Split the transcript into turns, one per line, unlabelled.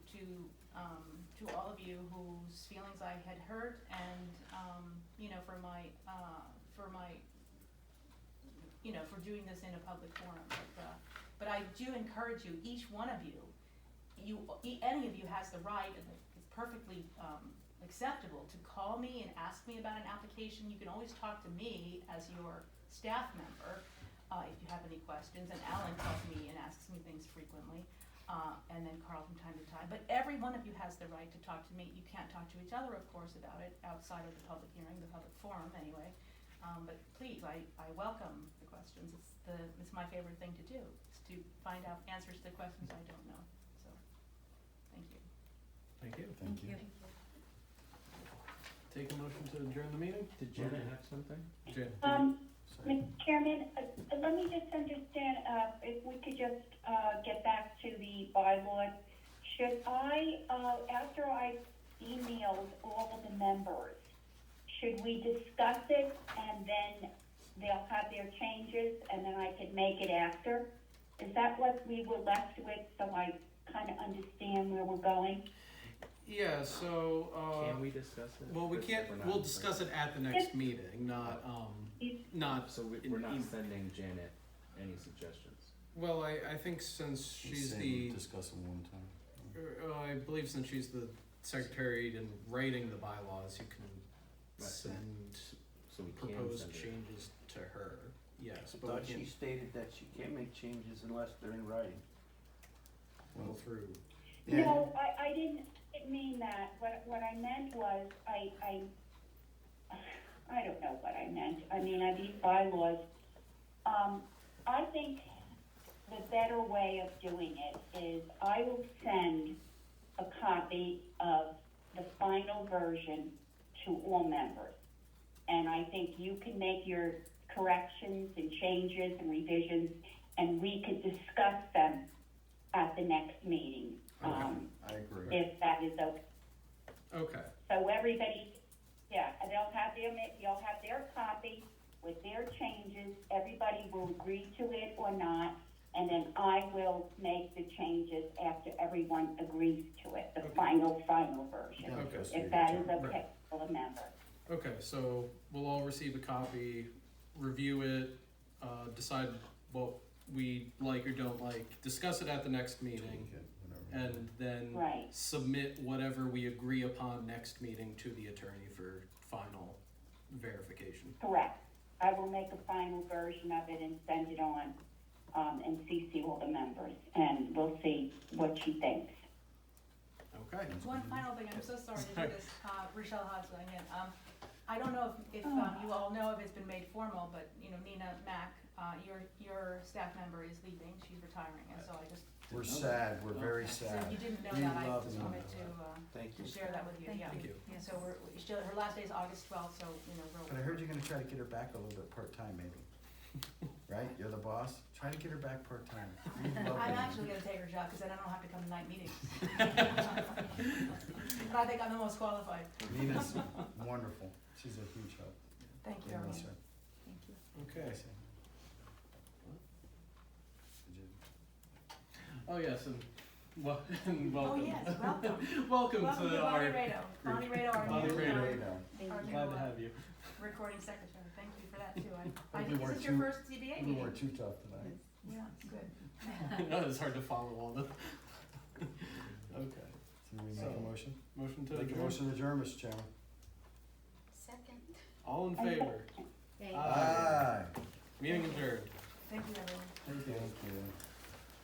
um, to all of you whose feelings I had hurt and, um, you know, for my, uh, for my, you know, for doing this in a public forum, but, uh, but I do encourage you, each one of you, you, e- any of you has the right, and it's perfectly, um, acceptable to call me and ask me about an application. You can always talk to me as your staff member, uh, if you have any questions, and Alan calls me and asks me things frequently, uh, and then Carl from time to time. But every one of you has the right to talk to me. You can't talk to each other, of course, about it outside of the public hearing, the public forum, anyway. Um, but please, I, I welcome the questions. It's the, it's my favorite thing to do, is to find out answers to questions I don't know, so, thank you.
Thank you.
Thank you.
Take a motion to adjourn the meeting? Did Jenna have something? Jen? did you-
Um,
sorry.
Mr. Chairman, uh, uh, let me just understand, uh, if we could just, uh, get back to the bylaws. Should I, uh, after I emailed all of the members, should we discuss it and then they'll have their changes and then I could make it after? Is that what we were left with, so I kinda understand where we're going?
Yeah, so,
Can
uh,
we discuss it?
well, we can't,
We're not-
we'll discuss it at the next meeting, not, um, not,
So we,
In
we're not
em-
sending Janet any suggestions.
well, I, I think since she's the,
Discuss them one time.
uh, I believe since she's the secretary and writing the bylaws, you can
Right.
send
So we can
proposed
send her.
changes to her, yes,
I
but
thought
we
she
can't
stated that she can't make changes unless they're in writing.
go through.
No, I, I didn't mean that. What, what I meant was, I, I, I don't know what I meant. I mean, I these bylaws. Um, I think the better way of doing it is I will send a copy of the final version to all members. And I think you can make your corrections and changes and revisions, and we could discuss them at the next meeting. Um,
I agree.
if that is okay.
Okay,
So everybody, yeah, and they'll have their, ma- you'll have their copy with their changes, everybody will agree to it or not, and then I will make the changes after everyone agrees to it, the
Okay.
final, final version.
Okay.
If that is
Right.
okay for the member.
okay, so we'll all receive a copy, review it, uh, decide what we like or don't like, discuss it at the next meeting. and then
Right.
submit whatever we agree upon next meeting to the attorney for final verification.
Correct. I will make a final version of it and send it on, um, and CC all the members, and we'll see what she thinks.
Okay.
One final thing, I'm so sorry to do this, uh, Rochelle Hodgson again, um, I don't know if, if, um, you all know if it's been made formal, but, you know, Nina Mack, uh, your, your staff member is leaving, she's retiring, and so I just,
We're sad, we're very
so
sad.
if you didn't know
We
that, I
love
just
Nina.
wanted to, uh,
Thank you.
to share that with you, yeah.
Thank you.
And so we're, we- she'll, her last day is August twelfth, so, you know, we're.
But I heard you're gonna try to get her back a little bit part-time maybe. Right? You're the boss? Try to get her back part-time. We love
I'm
Nina.
actually gonna take her job, cause then I don't have to come to night meetings. But I think I'm the most qualified,
Nina's wonderful. She's a huge help.
thank you,
We
everyone.
miss her.
Thank you.
Okay.
Did you-
Oh yes, and, wel- and
Oh,
welcome.
yes, welcome.
welcome,
Welcome
to
to Bonnie
our
Rado. Bonnie Rado, our
Bonnie
new,
Rado.
our-
Radar.
our new
glad to
uh,
have you.
recording secretary. Thank you for that too. I, I
Hope we
think, is
weren't
this your
too-
first CBA
We
meeting?
weren't too tough tonight.
Yeah, good.
I know it's hard to follow all the. okay.
Can we make
So-
a motion?
Motion to
Make a
adjourn.
motion to adjourn, Mr. Chairman.
Second.
All in favor.
Yay.
Aye.
Aye.
Meeting adjourned.
Thank you, everyone.
Thank you.